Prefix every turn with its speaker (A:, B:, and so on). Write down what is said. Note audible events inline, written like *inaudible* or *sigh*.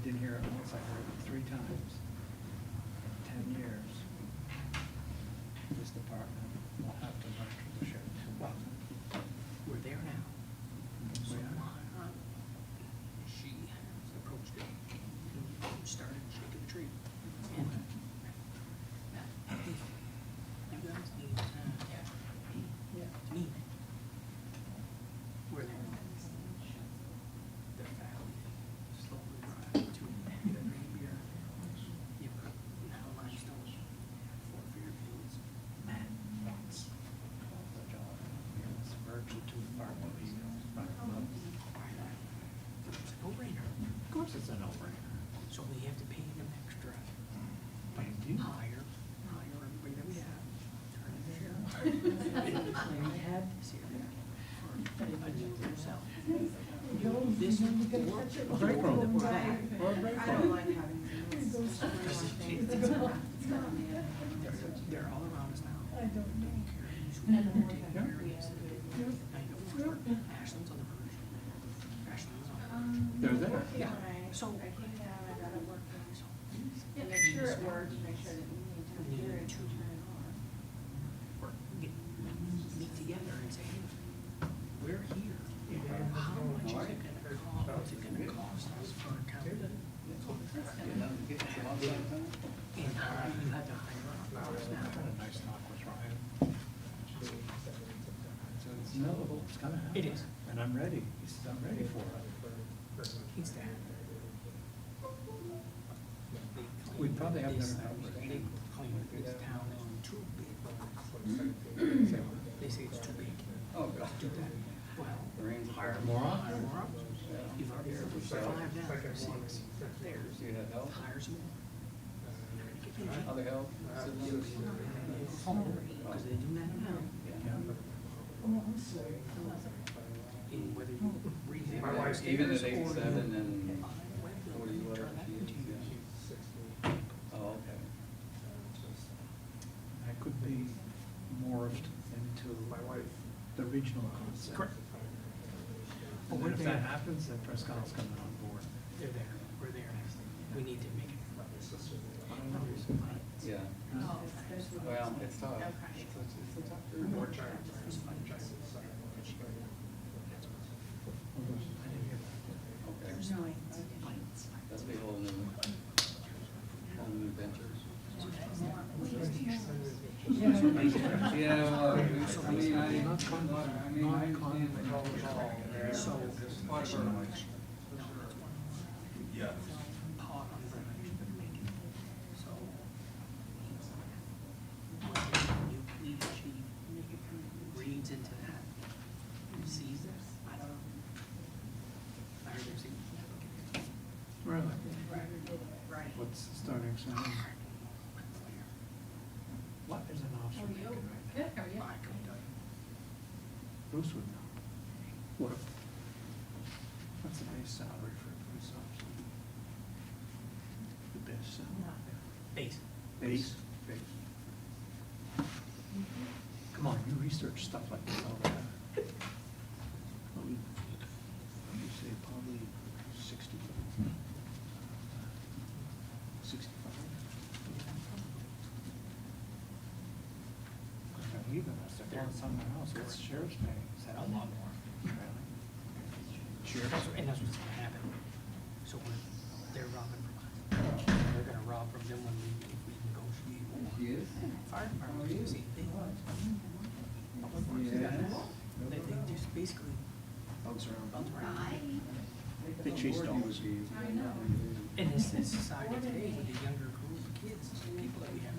A: I heard three times in ten years. This department will have to learn from the sheriff. Well, we're there now.
B: So
A: We
B: my
A: are.
B: aunt, she approached it, and started shaking the tree. And You guys need, uh, me. Where they're, they're valid, slowly drive to the green beer. You've got now limestone, four Fairfields, Matt wants.
A: Virgil to the park, what he's
B: It's a no-brainer.
A: Of course it's a no-brainer.
B: So we have to pay them extra.
A: But you-
B: Hire, hire everybody that we have. Turn it there. We had this area for a budget yourself. This work-
A: Well, very cool.
B: work that we're at,
C: I don't like having things. It's not- it's not me.
B: They're, *laughs* they're all around us now.
D: I don't know.
B: Carries,
D: I don't know what
B: take
D: that
B: areas.
D: is.
B: I know, it's work. Ashland's on the verge. Ashland's on.
C: Um,
A: They're there.
B: Yeah,
C: Right.
B: so-
C: I came down, I got it working, so.
B: Yeah,
C: Make sure it works, make sure that you need to hear it, to turn it
B: or get, meet together and say, hey, we're here. How much is it gonna cost, what's it gonna cost us for a uh, county? And how do you have to hire up hours now?
A: Nice talk with Ryan. So it's knowable, it's gonna happen.
B: It is.
A: And I'm ready. He says, I'm ready for it.
B: He's that.
A: We probably have never had
B: uh, They
A: one.
B: claim this town is too big.
A: Say,
B: They say it's too big.
A: Oh, God.
B: Do that. Well, hire more,
A: Moron.
B: hire more up. You've already, five now, six, there's,
A: You had help?
B: hire some more.
A: Other help?
B: Because they do that now. in whether you read them
E: My wife's
F: Even
B: downstairs
F: at eighty-seven
B: or-
F: and
B: Whether
F: forty,
B: you
F: whatever
B: turn that
F: she is,
B: into your-
F: yeah. Oh, okay.
A: I could be morphed into
E: My wife.
A: the regional concept.
B: Correct.
A: And
B: But
A: then
B: we're
A: if that
B: there,
A: happens, then Prescott's coming on board.
B: they're there, we're there, we need to make it.
F: Yeah,
B: Oh,
C: on. Especially when
F: well, it's tough.
C: Okay.
F: It's a, it's a tough.
E: More
F: group.
E: time.
F: Okay,
B: There's lights,
C: *laughs*
B: lights.
F: that's a whole new, whole new venture. *laughs* Yeah, well, it's- I mean, I, I mean, I understand the whole call.
B: So-
F: Part of our life.
B: Yeah. Pot on the renovation, but make it, so. whether you please, she reads into that, sees it, I don't know. I heard there's a-
A: Really?
B: Right.
A: What's starting soon? What is an
C: "Oh,
A: officer making right now?
C: Good, are you?
B: I couldn't tell you.
A: Bruce would know. What? What's the base salary for a police officer? The best salary?
B: Base.
A: Base? Base. Come on, you research stuff like this all the time. Probably, you say probably sixty. Sixty-five. They're leaving us, they're going somewhere else, what's the sheriff's pay? Is that
B: A lot
A: *laughs*
B: more.
A: Sure.
B: That's- And that's what's gonna happen. So when they're robbing from us, they're gonna rob from them when we, if we negotiate more.
F: She is?
B: Fire department, you see, they want. Public works, they got the law. They, they just basically
F: Bounce around.
B: bounce around.
A: They chased all
F: I
B: And this is society today with the younger group of kids, people that we have Oh,
C: Oh,